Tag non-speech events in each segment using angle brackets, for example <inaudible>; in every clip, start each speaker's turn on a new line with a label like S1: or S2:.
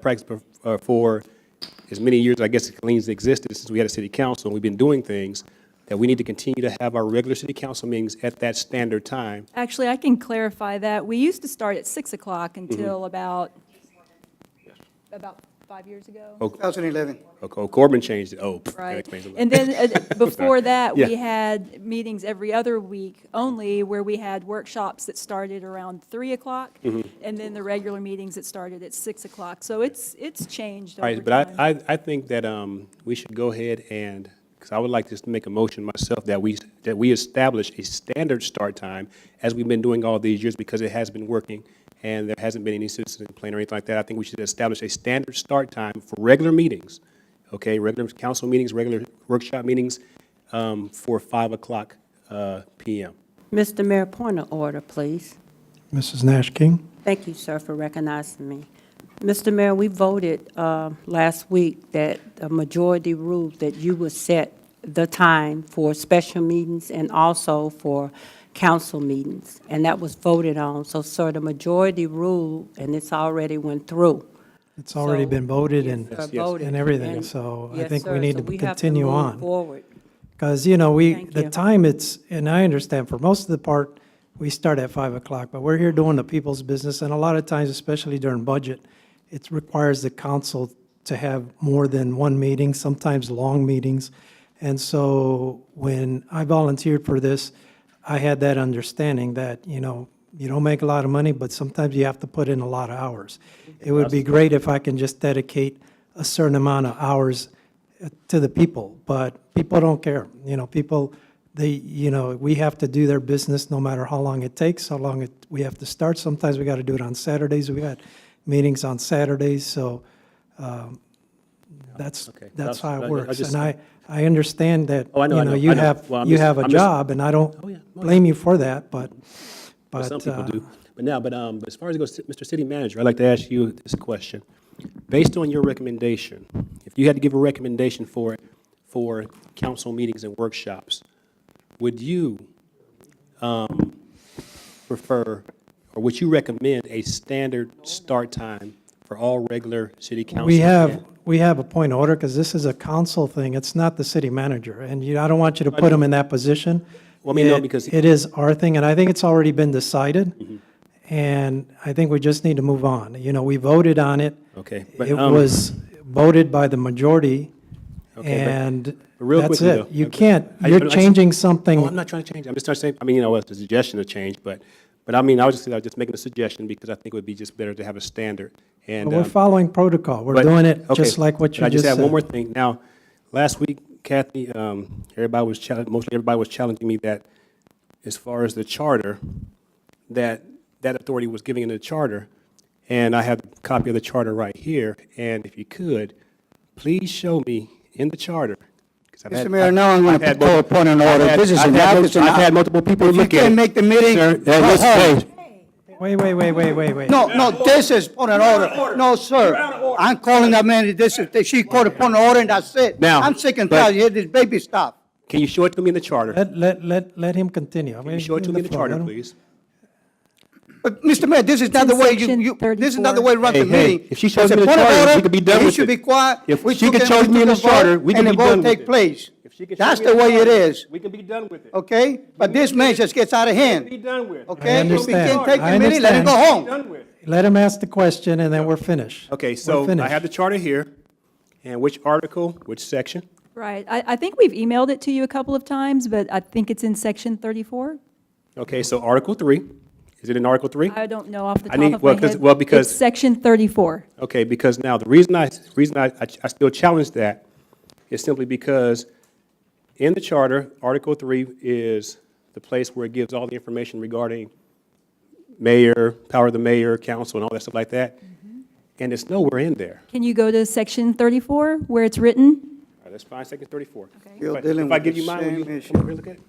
S1: practice bef- uh, for as many years, I guess, as Colleen's existed, since we had a city council, and we've been doing things, that we need to continue to have our regular city council meetings at that standard time.
S2: Actually, I can clarify that. We used to start at 6 o'clock
S1: Mm-hmm.
S2: until about, about five years ago.
S3: 2011.
S1: Okay, oh, Corbin changed it, oh. pff, Oh, that
S2: Right.
S1: explains a lot.
S2: And then
S1: <laughs>
S2: uh, before that,
S1: Yeah.
S2: we had meetings every other week only where we had workshops that started around 3 o'clock
S1: Mm-hmm.
S2: and then the regular meetings that started at 6 o'clock. So it's, it's changed
S1: All
S2: over
S1: right, but I-
S2: time.
S1: I, I think that um, we should go ahead and, because I would like just to make a motion myself that we, that we establish a standard start time, as we've been doing all these years, because it has been working, and there hasn't been any citizen complaint or anything like that. I think we should establish a standard start time for regular meetings, okay? Regular council meetings, regular workshop meetings um, for 5 o'clock uh, PM.
S4: Mr. Mayor, point of order, please.
S5: Mrs. Nash King?
S4: Thank you, sir, for recognizing me. Mr. Mayor, we voted uh, last week that a majority ruled that you would set the time for special meetings and also for council meetings, and that was voted on. So, sir, the majority ruled, and it's already went through.
S5: It's already
S4: So-
S5: been voted and,
S4: Yes, sir,
S1: yes.
S4: voted.
S5: and everything,
S4: And-
S5: so I
S4: Yes,
S5: think we
S4: sir,
S5: need
S4: so
S5: to
S4: we have
S5: continue
S4: move
S5: on.
S4: Forward.
S5: Because, you know, we,
S4: Thank
S5: the
S4: you.
S5: time it's, and I understand, for most of the part, we start at 5 o'clock, but we're here doing the people's business, and a lot of times, especially during budget, it requires the council to have more than one meeting, sometimes long meetings. And so when I volunteered for this, I had that understanding that, you know, you don't make a lot of money, but sometimes you have to put in a lot of hours. It would be great if I can just dedicate a certain amount of hours uh, to the people, but people don't care. You know, people, they, you know, we have to do their business no matter how long it takes, how long it, we have to start. Sometimes we got to do it on Saturdays. We got meetings on Saturdays, so um, that's,
S1: Okay.
S5: that's how
S1: That's- I-
S5: it
S1: I
S5: works.
S1: just-
S5: And I, I understand that,
S1: Oh, I
S5: you
S1: know, I
S5: know,
S1: know,
S5: you
S1: I know.
S5: have,
S1: Well, I'm
S5: you
S1: just-
S5: have a
S1: I'm just-
S5: job, and
S1: Oh,
S5: I
S1: yeah.
S5: don't
S1: Oh,
S5: blame you for that, but,
S1: Well,
S5: but.
S1: Some people
S5: uh,
S1: do. But now, but, um, as far as it goes, Mr. City Manager, I'd like to ask you this question. Based on your recommendation, if you had to give a recommendation for, for council meetings and workshops, would you, um, prefer, or would you recommend a standard start time for all regular city council?
S5: We have, we have a point of order, because this is a council thing, it's not the city manager, and you, I don't want you to put him in that position.
S1: Well, I mean, no,
S5: It-
S1: because- Mm-hmm.
S5: It is our thing, and I think it's already been decided, and I think we just need to move on. You know, we voted on it.
S1: Okay, but,
S5: It
S1: um,
S5: was voted by the majority,
S1: Okay, but-
S5: and
S1: but real
S5: that's
S1: quickly, though,
S5: it. You
S1: okay.
S5: can't,
S1: I-
S5: you're
S1: I'm-
S5: changing something.
S1: Oh, I'm not trying to change. I'm just trying to say, I mean, you know, it's a suggestion to change, but, but I mean, I was just, I was just making a suggestion because I think it would be just better to have a standard. And,
S5: But We're
S1: um,
S5: following protocol, we're
S1: but-
S5: doing it
S1: okay,
S5: just like what
S1: but
S5: you just
S1: I just have one
S5: said.
S1: more thing. Now, last week, Kathy, um, everybody was challenging, mostly everybody was challenging me that as far as the charter, that that authority was giving in the charter. And I have a copy of the charter right here. And if you could, please show me in the charter. 'cause I've
S3: Mr.
S1: had-
S3: Mayor, now I'm gonna
S1: I've had
S3: call
S1: multiple-
S3: upon an order.
S1: I've had-
S3: This is
S1: I've
S3: an
S1: had mul-
S3: office and
S1: I've
S3: I-
S1: had multiple people
S3: If you
S1: look at it.
S3: can't make the meeting,
S1: Sir,
S3: go
S1: let's
S3: home.
S1: vote.
S5: Wait, wait, wait, wait, wait, wait.
S3: No, no, this is point of order. No, sir. I'm calling that man, this is, she called a point of order and that's it.
S1: Now,
S3: I'm sick and
S1: but-
S3: tired, hear this baby stuff.
S1: Can you show it to me in the charter? Can
S5: Let, let, let, let him continue. I'm
S1: you
S5: gonna
S1: show it
S5: give
S1: to
S5: him
S1: me in the
S5: floor. Let
S1: charter,
S5: him-
S1: please?
S3: But, Mr. Mayor, this is not
S2: in
S3: the way you,
S2: section
S3: you, this is
S2: 34.
S3: not the way to run the
S1: Hey, hey,
S3: meeting.
S1: if she shows
S3: It's a
S1: me the
S3: point of
S1: charter, we
S3: order,
S1: could be done
S3: he
S1: with
S3: should
S1: it.
S3: be quiet.
S1: If
S3: We
S1: she
S3: took
S1: could
S3: it,
S1: show
S3: we
S1: me in
S3: took
S1: the
S3: a vote,
S1: charter, we could be done
S3: And the
S1: with
S3: vote
S1: it.
S3: take place.
S1: If she could show
S3: That's
S1: me
S3: the
S1: in
S3: way it
S1: charter,
S3: is,
S1: We can be done with it.
S3: okay? But this man just gets out of
S1: Be
S3: hand,
S1: done with.
S3: okay? If we
S5: understand.
S3: can't take
S5: I
S3: the meeting, let it go
S5: understand.
S3: home.
S1: with.
S5: Let him ask the question, and then we're finished.
S1: Okay,
S5: We're
S1: so I
S5: finished.
S1: have the charter here, and which article, which section?
S2: Right. I, I think we've emailed it to you a couple of times, but I think it's in section 34.
S1: Okay, so Article three, is it in Article three?
S2: I don't know off the
S1: I
S2: top
S1: need-
S2: of my
S1: well, 'cause-
S2: head.
S1: well, because-
S2: It's section 34.
S1: Okay, because now, the reason I, reason I, I- I still challenge that is simply because in the charter, Article three is the place where it gives all the information regarding mayor, power of the mayor, council, and all that stuff like that. And it's nowhere in there.
S2: Can you go to section 34 where it's written?
S1: All right, let's find section thirty-four.
S3: You're
S1: If I-
S3: dealing
S1: if I
S3: with
S1: give
S3: the
S1: you mine, will you
S3: same
S1: come
S3: issue.
S1: over here and look at it?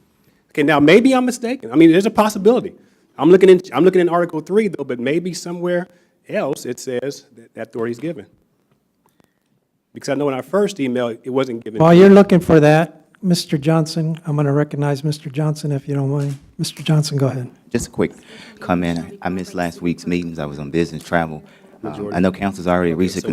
S1: Okay, now, maybe I'm mistaken. I mean, there's a possibility. I'm looking in, I'm looking in Article three, though, but maybe somewhere else it says that that authority is given. Because I know in our first email, it wasn't given.
S5: While you're looking for that, Mr. Johnson, I'm going to recognize Mr. Johnson if you don't mind. Mr. Johnson, go ahead.
S6: Just a quick comment. I missed last week's meetings. I was on business travel. Um, I know council's already
S1: So
S6: recently